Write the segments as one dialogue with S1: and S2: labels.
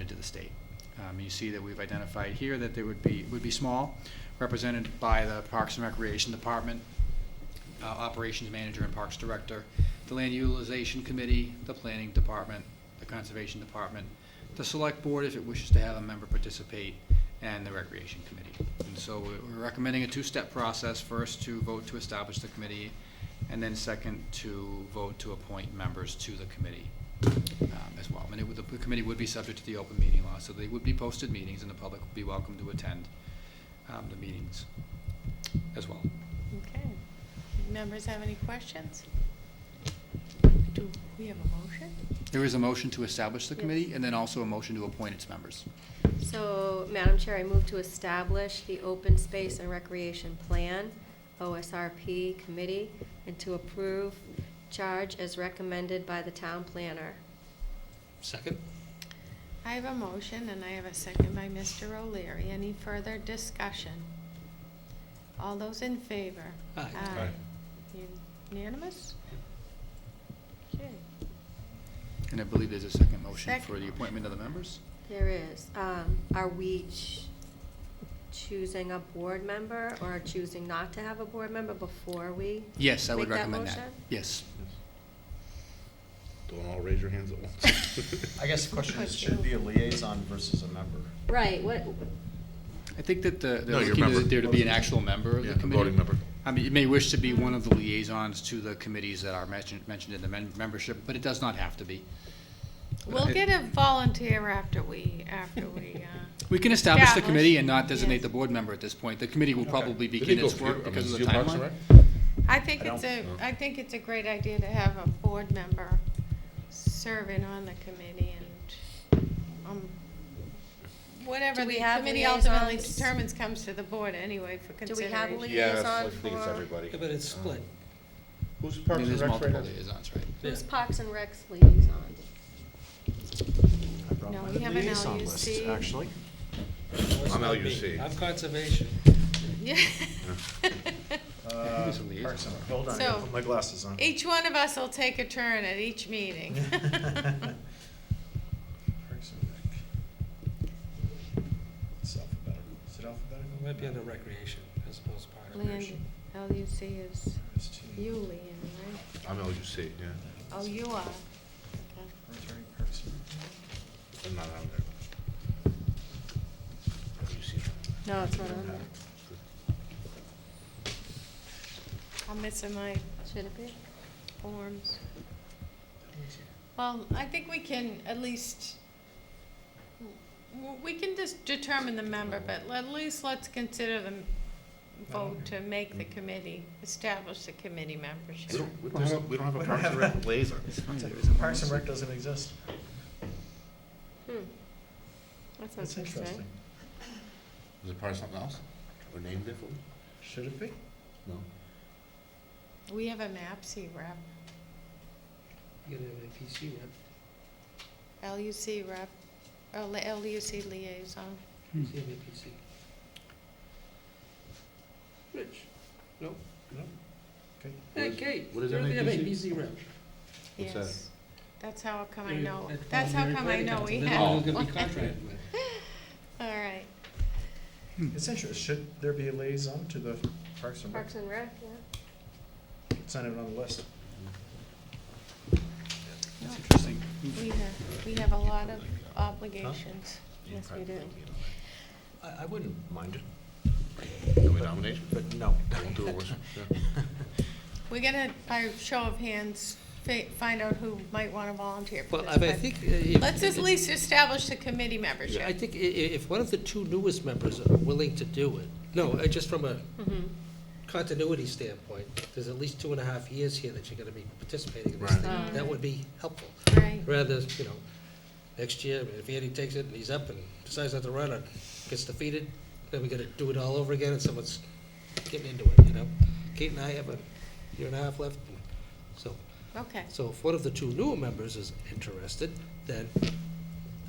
S1: the state. Um, You see that we've identified here that there would be, would be small, represented by the Parks and Recreation Department, uh, Operations Manager and Parks Director, the Land Utilization Committee, the Planning Department, the Conservation Department, the Select Board if it wishes to have a member participate, and the Recreation Committee. And so we- we're recommending a two-step process, first to vote to establish the committee, and then second to vote to appoint members to the committee um, as well. And it would, the committee would be subject to the open meeting law, so they would be posted meetings and the public would be welcome to attend um, the meetings as well.
S2: Okay. Members have any questions? Do we have a motion?
S1: There is a motion to establish the
S3: Yes.
S1: committee and then also a motion to appoint its members.
S3: So, Madam Chair, I move to establish the Open Space and Recreation Plan, OSRP Committee, and to approve charge as recommended by the town planner.
S4: Second?
S2: I have a motion and I have a second by Mr. O'Leary. Any further discussion? All those in favor?
S4: Aye.
S2: Unanimous? Okay.
S1: And I believe there's a second motion
S2: Second
S1: for the appointment of the members.
S3: There is, um, are we ch- choosing a board member or choosing not to have a board member before we?
S1: Yes, I would
S3: Make that
S1: recommend that.
S3: motion?
S1: Yes.
S5: Don't all raise your hands at once.
S6: I guess the question is, should it be a liaison versus a member?
S3: Right, what,
S1: I think that the,
S5: No,
S1: they're
S5: you're a
S1: looking to-
S5: member.
S1: there to be an actual member of
S5: Yeah,
S1: the
S5: a
S1: committee.
S5: voting member.
S1: I mean, it may wish to be one of the liaisons to the committees that are mentioned, mentioned in the men- membership, but it does not have to be.
S2: We'll get a volunteer after we, after we, uh,
S1: We can establish the
S2: Establish.
S1: committee and not designate
S2: Yes.
S1: the board member at this point. The committee will probably
S5: Did
S1: begin
S5: they go
S1: its
S5: through- I
S1: work
S5: mean,
S1: because of the
S5: did Parks and
S1: timeline.
S5: Rec?
S2: I think
S6: I
S2: it's a,
S6: don't-
S2: I think it's a great idea to have a board member serving on the committee and, um, whatever
S3: Do we
S2: the
S3: have
S2: committee ultimately
S3: liaisons?
S2: determines comes to the board anyway for
S3: Do we
S2: consideration.
S3: have liaisons?
S5: Yes, I
S3: Liaison
S5: think it's
S3: for-
S5: everybody.
S4: Yeah, but it's
S5: Um,
S4: split.
S5: Who's
S1: I
S5: Parks
S1: mean,
S5: and
S1: There's
S5: Rec right
S1: multiple
S5: now?
S1: liaisons, right?
S3: who's
S4: Yeah.
S3: Parks and Rec's liaison?
S6: I brought
S2: No,
S6: my
S2: we have an
S6: liaison list,
S2: LUC.
S6: Actually.
S4: That's
S5: I'm
S4: not me.
S5: LUC.
S4: I'm conservation.
S2: Yeah.
S6: Uh,
S1: it's a liaison.
S6: Parks and Rec. Hold on, I
S2: So-
S6: gotta put my glasses on.
S2: Each one of us will take a turn at each meeting.
S6: Parks and Rec. It's alphabetical. Is it alphabetical?
S4: It might be under recreation as opposed to park.
S2: Land, LUC is
S6: RST.
S2: you, Leanne, right?
S5: I'm LUC, yeah.
S2: Oh, you are.
S6: Rotary Parks and Rec.
S5: I'm not on there. LUC.
S3: No, it's not on there.
S2: I'm missing my
S3: Should it be?
S2: forms. Well, I think we can at least, w- we can just determine the member, but at least let's consider the m- vote to make the committee, establish the committee
S5: We
S2: membership.
S5: don't, we- there's no- we don't have
S6: We
S5: a
S6: don't
S5: Parks and
S6: have
S5: Rec liaison.
S6: Parks and Rec doesn't exist.
S3: Hmm. That sounds
S6: That's interesting.
S3: interesting.
S5: Is it part of something else? Or named differently?
S6: Should it be?
S5: No.
S2: We have a MAPC rep,
S4: You gotta have a PC rep.
S2: LUC rep, uh, li- LUC liaison.
S4: You have a PC. Rich, no,
S6: No? Okay.
S4: hey Kate, you
S5: what is
S4: already have a
S5: MAPC?
S4: PC rep.
S5: What's that?
S2: Yes, that's how come Oh, I
S4: You're-
S2: know,
S4: that's
S2: that's how
S4: probably
S2: come I
S4: Mary
S2: know
S4: Poppins,
S2: we
S4: and
S2: have
S4: then
S2: one.
S4: who's gonna be contracted with.
S2: All right,
S6: It's interesting. Should there be a liaison to the Parks and Rec?
S3: Parks and Rec, yeah.
S6: It's not even on the list.
S1: That's interesting.
S2: we have, we have a lot of obligations.
S3: Yes, we do.
S6: I, I wouldn't mind it.
S5: No nomination?
S6: But no.
S5: Don't do it, Worcester. Yeah.
S2: We're gonna, by show of hands, fi- find out who might wanna volunteer for
S4: Well,
S2: this.
S4: I mean, I
S2: but
S4: think. uh, if-
S2: Let's at least establish the committee membership.
S4: I think i- i- if one of the two newest members are willing to do it, no, uh, just from a continuity standpoint, there's at least two and a half years here that you're gonna be participating in this
S5: Right.
S4: thing.
S2: Mm.
S4: That would be helpful.
S2: Right.
S4: Rather, you know, next year, if Andy takes it and he's up and decides not to run or gets defeated, then we gotta do it all over again and someone's getting into it, you know? Kate and I have a year and a half left, and so.
S2: Okay,
S4: So if one of the two newer members is interested, then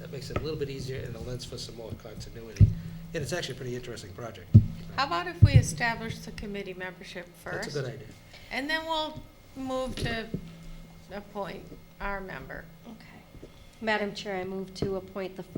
S4: that makes it a little bit easier and allows for some more continuity. And it's actually a pretty interesting project.
S2: how about if we establish the committee membership first?
S4: That's a good idea.
S2: And then we'll move to appoint our member.
S3: Okay. Madam Chair, I move to appoint the